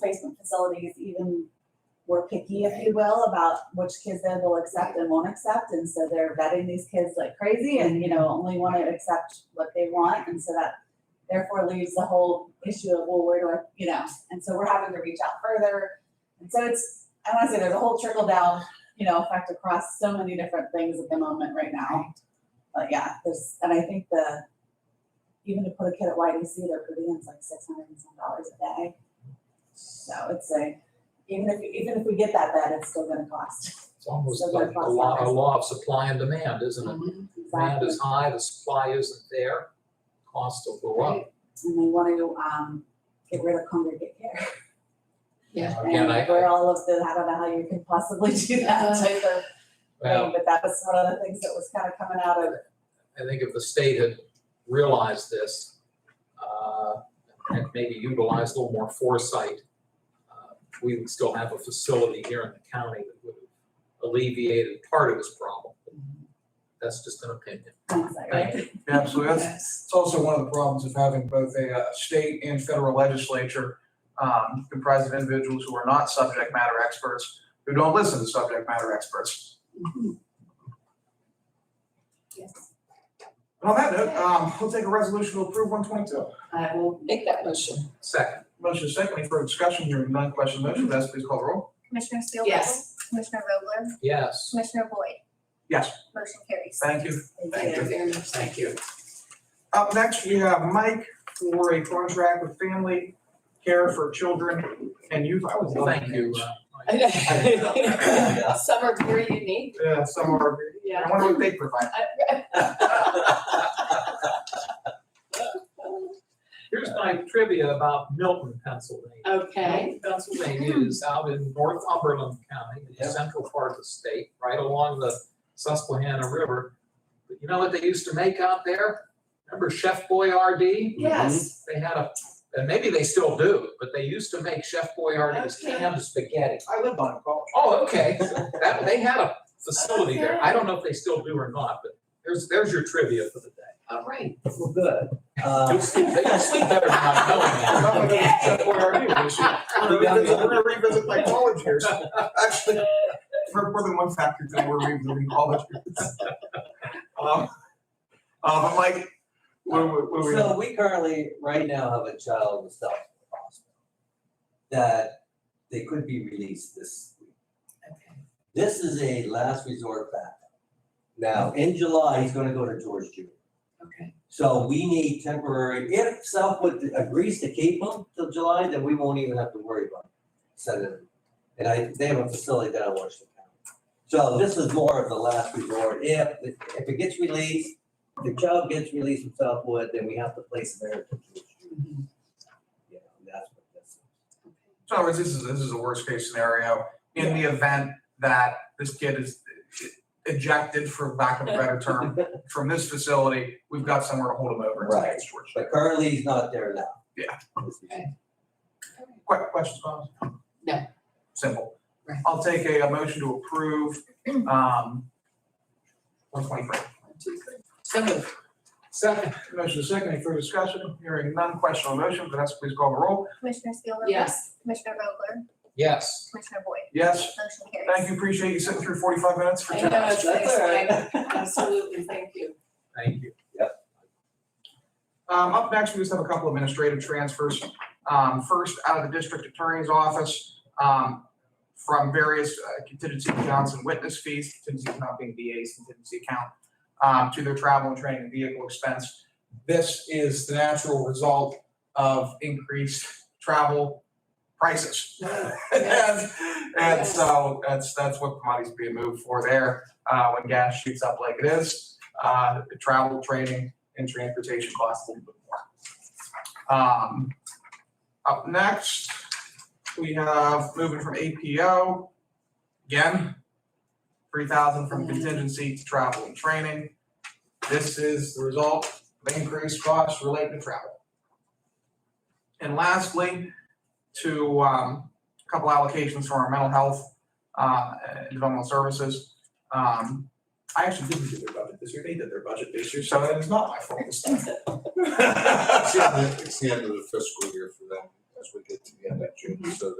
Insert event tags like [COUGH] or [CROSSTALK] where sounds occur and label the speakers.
Speaker 1: placement facilities even were picky, if you will, about which kids they will accept and won't accept, and so they're vetting these kids like crazy and, you know, only wanna accept what they want, and so that therefore leaves the whole issue of, well, where do I, you know, and so we're having to reach out further. And so it's, I wanna say there's a whole trickle down, you know, effect across so many different things at the moment right now. But yeah, there's, and I think the, even to put a kid at YDC, their per diem is like six hundred and some dollars a day. So it's a, even if, even if we get that bed, it's still gonna
Speaker 2: [LAUGHS]
Speaker 1: cost.
Speaker 2: It's almost
Speaker 1: So
Speaker 2: like
Speaker 1: that
Speaker 2: a
Speaker 1: costs
Speaker 2: law, a
Speaker 1: dollars.
Speaker 2: law of supply and demand, isn't it? Demand
Speaker 1: Exactly.
Speaker 2: is high, the supply isn't there, costs will go up.
Speaker 1: And they wanna, um, get rid of congregate care.
Speaker 2: Yeah. Again,
Speaker 1: And
Speaker 2: I,
Speaker 1: we're
Speaker 2: I-
Speaker 1: all of the, I don't know how you can possibly do that type of thing,
Speaker 2: well,
Speaker 1: but that was one of the things that was kind of coming out of,
Speaker 2: I think if the state had realized this, uh, and maybe utilized a little more foresight, uh, we would still have a facility here in the county that would have alleviated part of this problem. That's just an opinion.
Speaker 1: hindsight, right?
Speaker 2: Mm-hmm. Thank you.
Speaker 1: [LAUGHS]
Speaker 3: Absolutely. That's,
Speaker 4: Yes.
Speaker 3: it's also one of the problems of having both a uh, state and federal legislature um, comprised of individuals who are not subject matter experts, who don't listen to subject matter experts.
Speaker 4: Yes.
Speaker 3: And on that note, um, we'll take a resolution to approve one twenty-two.
Speaker 4: I will make that motion.
Speaker 2: Second,
Speaker 3: Motion is second, any further discussion, hearing none, question on the motion, Vanessa, please call the roll.
Speaker 5: Commissioner Steelvogel?
Speaker 4: Yes.
Speaker 5: Commissioner Vogler?
Speaker 2: yes.
Speaker 5: Commissioner Boyd?
Speaker 3: Yes.
Speaker 5: Motion carries.
Speaker 3: Thank you.
Speaker 4: Thank you very [LAUGHS] much. Thank you.
Speaker 3: Up next, we have Mike for a contract with family care for children and youth. I always love
Speaker 2: Thank you.
Speaker 3: names.
Speaker 2: uh,
Speaker 4: I
Speaker 2: [LAUGHS]
Speaker 4: know. Some are very unique.
Speaker 3: Yeah, some are, I
Speaker 4: Yeah.
Speaker 3: wonder what they provide.
Speaker 2: Here's my trivia about Milton, Pennsylvania.
Speaker 4: Okay. Hmm.
Speaker 2: Milton, Pennsylvania is out in Northumberland County, in the central part of the state, right along the Susquehanna River. But you know what they used to make out there? Remember Chef Boyardee?
Speaker 4: Yes.
Speaker 2: They had a, and maybe they still do, but they used to make Chef Boyardee's
Speaker 4: Okay.
Speaker 2: canned spaghetti.
Speaker 3: I lived on a college.
Speaker 2: [LAUGHS] Oh, okay, that, they had a facility there. I don't know if they still do or not, but there's, there's your trivia for the day.
Speaker 4: All right.
Speaker 6: Well, good. Uh,
Speaker 2: You'll sleep, you'll sleep better than I'm
Speaker 3: I'm
Speaker 2: telling you.
Speaker 4: [LAUGHS]
Speaker 3: gonna revisit where I am this year. I'm gonna revisit- I'm gonna revisit my college years. Actually, for more than one factor, that we're revisiting college years. Um, uh, but Mike, what, what, what we,
Speaker 6: so we currently, right now, have a child with South Dakota Hospital that they could be released this week. This is a last resort backup. Now, in July, he's gonna go to George Junior.
Speaker 4: Okay.
Speaker 6: So we need temporary, if Southwood agrees to keep him till July, then we won't even have to worry about sending him. And I, they have a facility down in Washington County. So this is more of the last resort. If, if it gets released, if the child gets released from Southwood, then we have to place him there. for two years. You know, and that's what this is.
Speaker 3: in other words, this is, this is a worst case scenario. In the event that this kid is ejected, for lack of a better term, from this facility, we've got somewhere to hold him over until he gets George.
Speaker 6: But currently, he's not there now.
Speaker 3: Yeah.
Speaker 6: This is-
Speaker 3: Que- questions, comments?
Speaker 4: No.
Speaker 3: Simple.
Speaker 4: Right. Mm.
Speaker 3: I'll take a, a motion to approve, um, one twenty-three.
Speaker 4: So moved.
Speaker 2: Second,
Speaker 3: Motion is second, any further discussion? Hearing none, question on the motion, Vanessa, please call the roll.
Speaker 5: Commissioner Steelvogel?
Speaker 4: Yes.
Speaker 5: Commissioner Vogler?
Speaker 2: yes.
Speaker 5: Commissioner Boyd?
Speaker 3: Yes,
Speaker 5: Motion carries.
Speaker 3: thank you, appreciate you sitting through forty-five minutes for
Speaker 4: I
Speaker 3: ten
Speaker 4: know,
Speaker 3: minutes.
Speaker 4: it's
Speaker 6: all
Speaker 4: exciting.
Speaker 6: right.
Speaker 4: Absolutely. Thank you.
Speaker 2: Thank you.
Speaker 3: Um, up next, we just have a couple administrative transfers. Um, first, out of the district attorney's office, um, from various uh, contingency accounts and witness fees, contingency account being VA's contingency account, um, to their travel and training and vehicle expense. This is the natural result of increased travel prices. [LAUGHS] And, and so that's, that's what commodities being moved for there, uh, when gas shoots up like it is. Uh, the travel, training, and transportation costs a little bit more. Um, up next, we have moving from APO, again, three thousand from contingency to travel and training. This is the result of increased costs related to travel. And lastly, to, um, a couple allocations for our mental health, uh, and developmental services. Um, I actually didn't do their budget this year, they did their budget this year, so it's not my fault this time.
Speaker 2: [LAUGHS]
Speaker 7: It's the end of- it's the end of the fiscal year for them. as we get to the end of June, so